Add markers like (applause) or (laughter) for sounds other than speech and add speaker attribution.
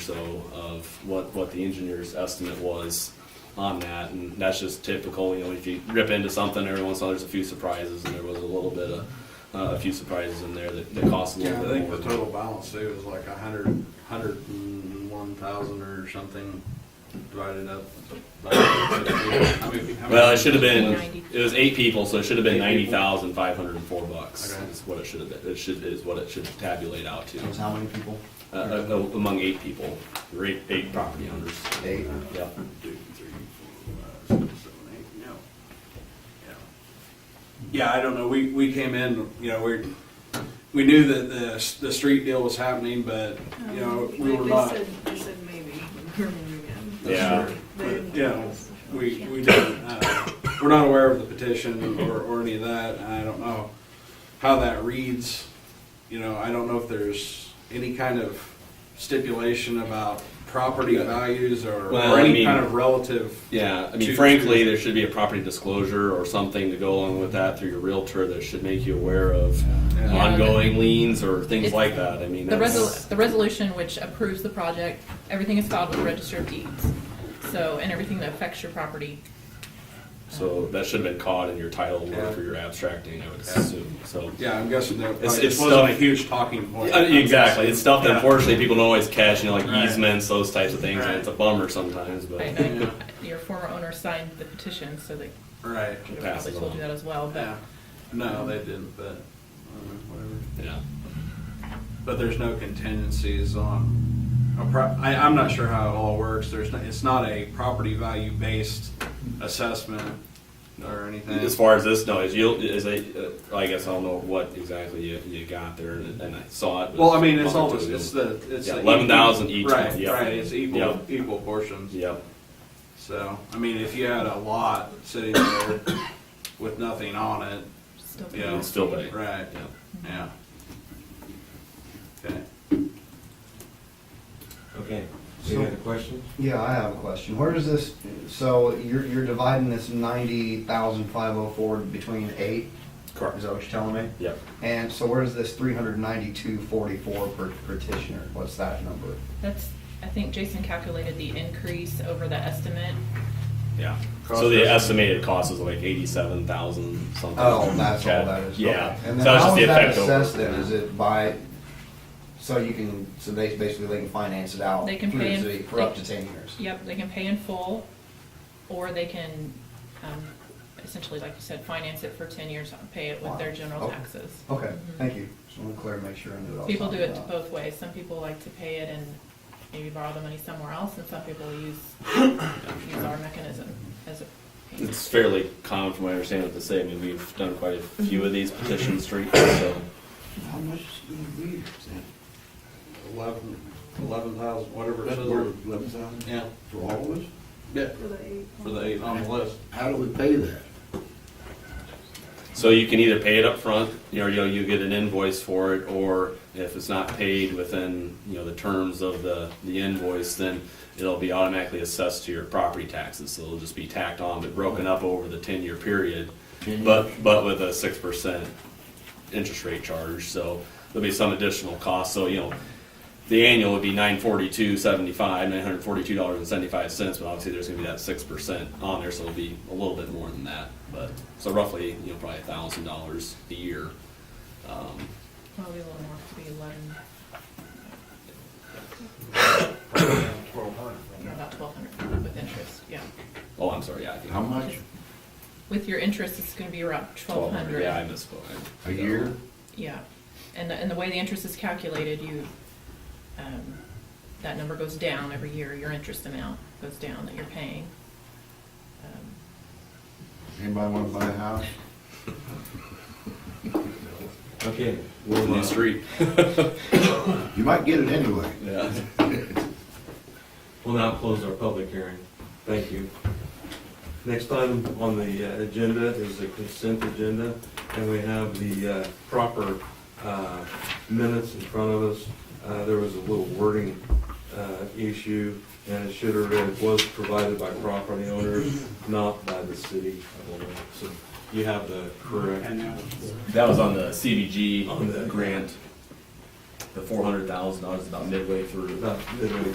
Speaker 1: so of what, what the engineer's estimate was on that, and that's just typical, you know, if you rip into something, every once in a while, there's a few surprises, and there was a little bit of, uh, a few surprises in there that, that cost a
Speaker 2: Yeah, I
Speaker 1: little bit
Speaker 2: think the
Speaker 1: more.
Speaker 2: total balance too was like a hundred, hundred and one thousand or something divided up. by 50. How many- how
Speaker 1: Well, it
Speaker 2: many-
Speaker 1: should have been,
Speaker 3: Ninety.
Speaker 1: it was eight people, so it should have been
Speaker 2: Eight
Speaker 1: ninety
Speaker 2: people.
Speaker 1: thousand five hundred and four bucks,
Speaker 2: Okay.
Speaker 1: is what it should have been, it should, is what it should tabulate out to,
Speaker 4: It was how many people?
Speaker 1: uh, uh, among eight people, or eight, eight property owners.
Speaker 4: Eight.
Speaker 1: Yeah.
Speaker 2: Two, three, four, five, six, seven, eight, no. Yeah. Yeah, I don't know, we, we came in, you know, we, we knew that the, the street deal was happening, but, you know, we were
Speaker 3: Um, They
Speaker 2: not.
Speaker 3: said- They said maybe, (laughs) we were moving in.
Speaker 1: Yeah.
Speaker 3: They-
Speaker 2: But, yeah, we, we didn't, uh, we're not aware of the petition or, or any of that, and I don't know how that reads. You know, I don't know if there's any kind of stipulation about property values or,
Speaker 1: Well,
Speaker 2: or
Speaker 1: I
Speaker 2: any
Speaker 1: mean-
Speaker 2: kind of relative.
Speaker 1: Yeah, I
Speaker 2: to-
Speaker 1: mean, frankly, there should be a property disclosure or something to go along with that through your realtor that should make you aware of
Speaker 2: Yeah.
Speaker 1: ongoing liens or things
Speaker 5: It's-
Speaker 1: like that. I mean,
Speaker 5: The
Speaker 1: that's,
Speaker 5: resol, the resolution which approves the project, everything is filed with the register of deeds. So, and everything that affects your property.
Speaker 1: so that should have been caught in your title
Speaker 2: Yeah.
Speaker 1: work or your abstracting, I would assume, so.
Speaker 2: Yeah, I'm guessing that
Speaker 1: It's-
Speaker 2: probably-
Speaker 1: it's
Speaker 2: it wasn't a
Speaker 1: stuff-
Speaker 2: huge talking point.
Speaker 1: Yeah, Exactly, it's stuff that
Speaker 2: Yeah.
Speaker 1: unfortunately people don't always catch, you know, like
Speaker 2: Right.
Speaker 1: easements, those types of things, and
Speaker 2: Right.
Speaker 1: it's a bummer sometimes, but.
Speaker 5: I
Speaker 1: it
Speaker 5: know
Speaker 2: Yeah.
Speaker 5: your former owner signed the petition, so they
Speaker 2: Right,
Speaker 5: could have
Speaker 1: passes
Speaker 5: probably told
Speaker 1: on.
Speaker 5: you that as well,
Speaker 2: yeah,
Speaker 5: but
Speaker 2: no, they didn't, but, uh, whatever.
Speaker 1: Yeah,
Speaker 2: But there's no contingencies on, a pro- I, I'm not sure how it all works, there's, no- it's not a property value based assessment or anything.
Speaker 1: as far as this knows, you'll, is a, uh, I guess I don't know what exactly you, you got there, and and I saw it. but
Speaker 2: Well, I mean,
Speaker 1: a
Speaker 2: it's
Speaker 1: month or
Speaker 2: all,
Speaker 1: two
Speaker 2: it's
Speaker 1: ago.
Speaker 2: it's the, it's.
Speaker 1: Yeah,
Speaker 2: the
Speaker 1: 11,000
Speaker 2: equal-
Speaker 1: each
Speaker 2: Right,
Speaker 1: one, yeah.
Speaker 2: right, it's
Speaker 1: Yeah.
Speaker 2: equal, equal portions.
Speaker 1: Yep,
Speaker 2: So, I mean, if you had a lot sitting there with nothing on it,
Speaker 5: still.
Speaker 2: Yeah.
Speaker 1: it's still big,
Speaker 2: right,
Speaker 1: yeah.
Speaker 2: yeah. Okay.
Speaker 6: Okay. So you had a question?
Speaker 4: Yeah, I have a question. Where is this, so you're, you're dividing this ninety thousand five oh four between eight? Is
Speaker 1: Correct.
Speaker 4: that what you're telling me?
Speaker 1: Yep.
Speaker 4: And so where's this three hundred ninety-two forty-four per petitioner? What's that number?
Speaker 5: That's, I think Jason calculated the increase over the estimate.
Speaker 1: Yeah.
Speaker 6: Cost
Speaker 1: So the
Speaker 6: estimate.
Speaker 1: estimated cost is like eighty-seven thousand something.
Speaker 4: Oh, that's all
Speaker 1: Yeah.
Speaker 4: that is.
Speaker 1: Yeah.
Speaker 4: Okay. And
Speaker 1: So
Speaker 4: then
Speaker 1: that's just
Speaker 4: how
Speaker 1: the
Speaker 4: is that
Speaker 1: effect over.
Speaker 4: assessed then? Is it by, so you can, so they, basically they can finance it out?
Speaker 5: They can
Speaker 4: through
Speaker 5: pay
Speaker 4: the
Speaker 5: in-
Speaker 4: city For up
Speaker 5: they-
Speaker 4: to ten years?
Speaker 5: Yep, they can pay in full, or they can, um, essentially, like you said, finance it for ten years, pay it with their general
Speaker 2: Oh,
Speaker 4: Wow.
Speaker 5: taxes.
Speaker 4: Okay,
Speaker 5: Mhm.
Speaker 4: thank you. Just want to clear, make sure I knew what I was
Speaker 5: People do
Speaker 4: talking
Speaker 5: it
Speaker 4: about.
Speaker 5: both ways. Some people like to pay it and maybe borrow the money somewhere else, and some people use, use our mechanism as a payment.
Speaker 1: It's fairly common from what I understand what they say. I mean, we've done quite a few of these petition streets, so.
Speaker 7: How much is it gonna be, is that,
Speaker 2: Eleven, eleven thousand, whatever it
Speaker 7: that's
Speaker 2: says.
Speaker 7: worth eleven thousand
Speaker 2: Yeah,
Speaker 7: for all of us?
Speaker 2: yeah,
Speaker 3: For the eight.
Speaker 2: for the eight on the list.
Speaker 7: How do we pay that?
Speaker 1: So you can either pay it up front, you know, you know, you get an invoice for it, or if it's not paid within, you know, the terms of the, the invoice, then it'll be automatically assessed to your property taxes, so it'll just be tacked on, but broken up over the ten-year period. But, but with a six percent interest rate charge, so there'll be some additional cost, so, you know, the annual would be nine forty-two seventy-five, nine hundred forty-two dollars and seventy-five cents, but obviously there's gonna be that six percent on there, so it'll be a little bit more than that, but, so roughly, you know, probably a thousand dollars a year. Um,
Speaker 5: Probably a little more, could be eleven, about twelve hundred with interest, yeah.
Speaker 1: Oh, I'm sorry, yeah, I think.
Speaker 7: How much
Speaker 5: With your interest, it's gonna be around twelve
Speaker 1: 1200,
Speaker 5: hundred.
Speaker 1: Yeah, I misspoke. I-
Speaker 7: a year?
Speaker 5: Yeah, and, the- and the way the interest is calculated, you, um, that number goes down every year, your interest amount goes down that you're paying. Um,
Speaker 7: Anybody wanna buy a house?
Speaker 6: Okay.
Speaker 1: Little
Speaker 6: Well,
Speaker 1: new
Speaker 6: uh,
Speaker 1: street.
Speaker 7: You might get it anyway.
Speaker 1: (laughs) Yeah.
Speaker 6: we'll now close our public hearing. Thank you. Next item on the uh, agenda is the consent agenda, and we have the uh, proper uh, minutes in front of us. Uh, There was a little wording uh, issue, and it should have read, was provided by property owners, not by the city. I believe. So you have the correct.
Speaker 1: That was on the CDG
Speaker 6: On the-
Speaker 1: grant. The four hundred thousand dollars about midway through.
Speaker 6: About midway